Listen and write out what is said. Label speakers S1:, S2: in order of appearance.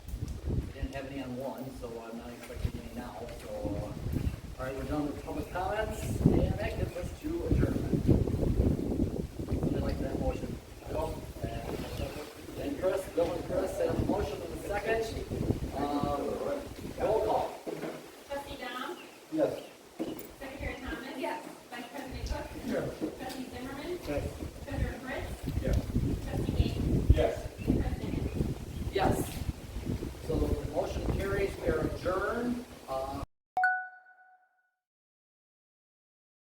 S1: didn't have any on one, so I'm not expecting any now, so. uh, All right, we're done with public comments, and that gets us to adjournment. Would you like that motion? And Chris, Bill and Chris, have a motion in a second. Um, roll call.
S2: Trustee Dom?
S1: Yes.
S2: Secretary Thomas? Yes. Vice President Cook?
S1: Yes.
S2: Trustee Zimmerman?
S1: Yes.
S2: Treasurer Fritz?
S1: Yes.
S2: Trustee Gaines?
S1: Yes.
S2: President Henry?
S1: Yes. Uh,